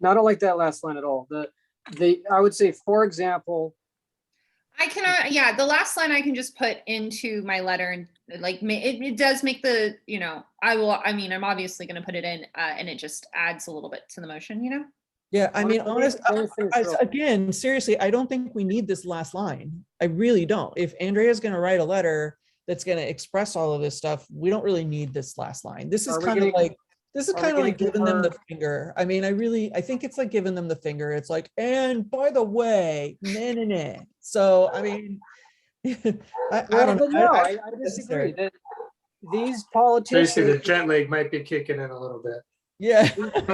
No, I don't like that last line at all. The, the, I would say, for example, I can, uh, yeah, the last line I can just put into my letter and like, ma- it, it does make the, you know, I will, I mean, I'm obviously gonna put it in, uh, and it just adds a little bit to the motion, you know? Yeah, I mean, Honestly, honest, I think I- so. again, seriously, I don't think we need this last line. I really don't. If Andrea's gonna write a letter that's gonna express all of this stuff, we don't really need this last line. This is Are we kind of gonna- like, this is are we kind of gonna like give giving them the her- finger. I mean, I really, I think it's like giving them the finger. It's like, and by the way, nah, nah, nah. So, I mean, I, I well, don't but know. no, I- I I- I disagree necessary. that these Tracy, the politicians, jet lag might be kicking in a little bit. Yeah.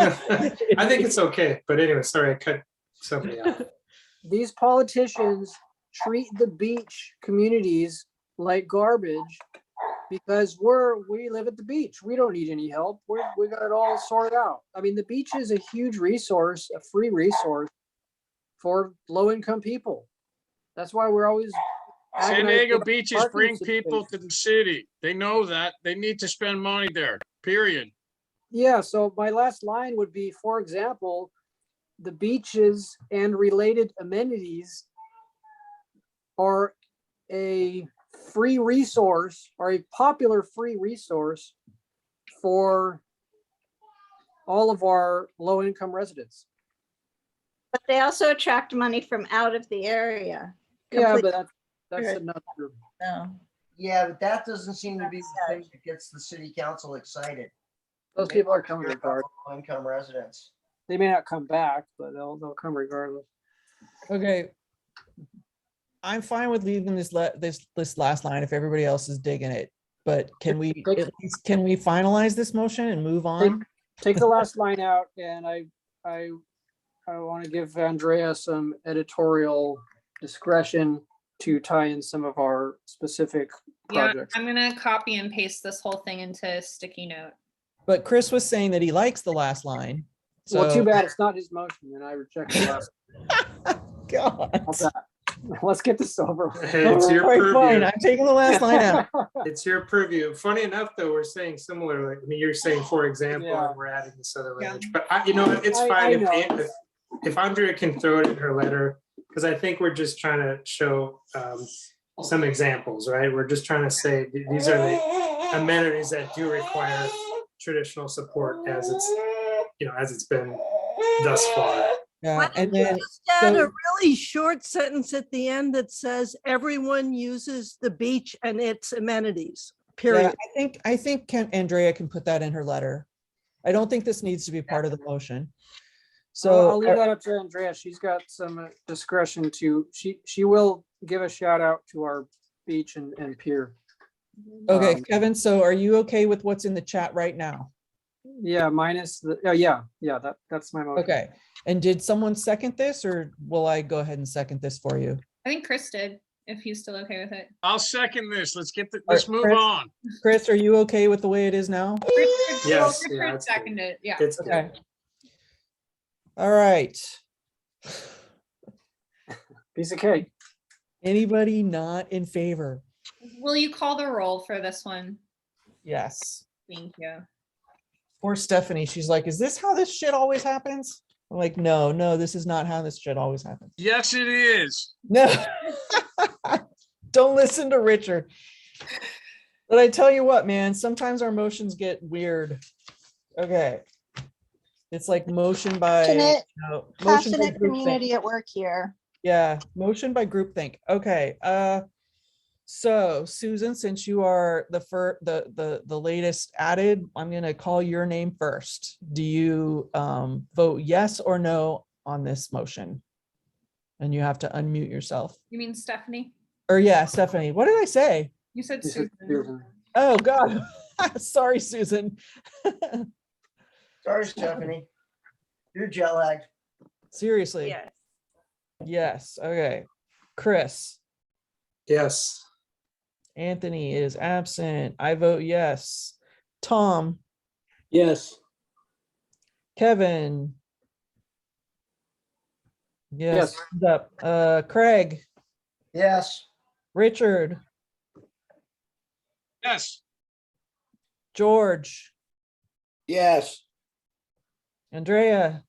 I think it's okay, but anyway, sorry, I cut somebody off. these politicians treat the beach communities like garbage because we're, we live at the beach. We don't need any help. We're, we got it all sorted out. I mean, the beach is a huge resource, a free resource for low-income people. That's why we're always. San agonizing Diego about beaches parking bring people situations. to the city. They know that. They need to spend money there, period. Yeah, so my last line would be, for example, the beaches and related amenities are a free resource, are a popular free resource for all of our low-income residents. But they also attract money from out of the area. Yeah, Complete- but that's, that's Good. another, no. Yeah, but that doesn't seem to be the That's thing that gets the city council excited. those people are coming regardless. Income residents. They may not come back, but they'll, they'll come regardless. Okay. I'm fine with leaving this la- this, this last line if everybody else is digging it, but can we, Good. at least, can we finalize this motion and move on? take the last line out and I, I, I want to give Andrea some editorial discretion to tie in some of our specific Yeah, projects. I'm gonna copy and paste this whole thing into sticky note. But Chris was saying that he likes the last line. Well, too so- bad it's not his motion and I reject the last. God. How's that? Let's get this over. with. It's your Alright, Fine, purview. I'm taking the last line out. It's your purview. Funny enough, though, we're saying similar, like, I mean, you're saying, for example, Yeah. and we're adding this other Yeah. language, but I, you know, what, it's I- I fine if, know. An- if- if Andrea can throw it in her letter, because I think we're just trying to show um, some examples, right? We're just trying to say, th- these are the amenities that do require traditional support as it's, you know, as it's been thus far. Yeah, Why and don't you then, just add so- a really short sentence at the end that says, everyone uses the beach and its amenities, yeah, period. I think, I think can, Andrea can put that in her letter. I don't think this needs to be part of the motion. So I'll leave So, that up to Andrea. She's got some uh, discretion to, she, she will give a shout out to our beach and, and pier. okay, um, Kevin, so are you okay with what's in the chat right now? Yeah, minus the, oh, yeah, yeah, that, that's my motion. Okay, and did someone second this or will I go ahead and second this for you? I think Chris did, if he's still okay with it. I'll second this. Let's get, the let's move Chris? on. Chris, are you okay with the way it is now? Chris- Chris- Yes, Chris yeah, that's good. Seconded, yeah. It's good. Okay. All right. Piece of cake. Anybody not in favor? Will you call the roll for this one? Yes. Thank you. Poor Stephanie, she's like, is this how this shit always happens? I'm like, no, no, this is not how this shit always happens. Yes, it is. No. Don't listen to Richard. But I tell you what, man, sometimes our motions get weird. Okay. It's like motion by. Passionate- no, motion by Passionate groupthink. community at work here. Yeah, motion by groupthink. Okay, uh, so Susan, since you are the fir, the, the, the latest added, I'm gonna call your name first. Do you, um, vote yes or no on this motion? And you have to unmute yourself. You mean Stephanie? Or yeah, Stephanie, what did I say? You said Piece of- Susan. Oh, God. Sorry, Susan. Sorry, Stephanie. You're jet lagged. Seriously. Yes, okay. Chris? Yes. Anthony is absent. I vote yes. Tom? Yes. Kevin? Yes, Yes. hands up. Uh, Craig, Yes. Richard, Yes. George, Yes. Andrea,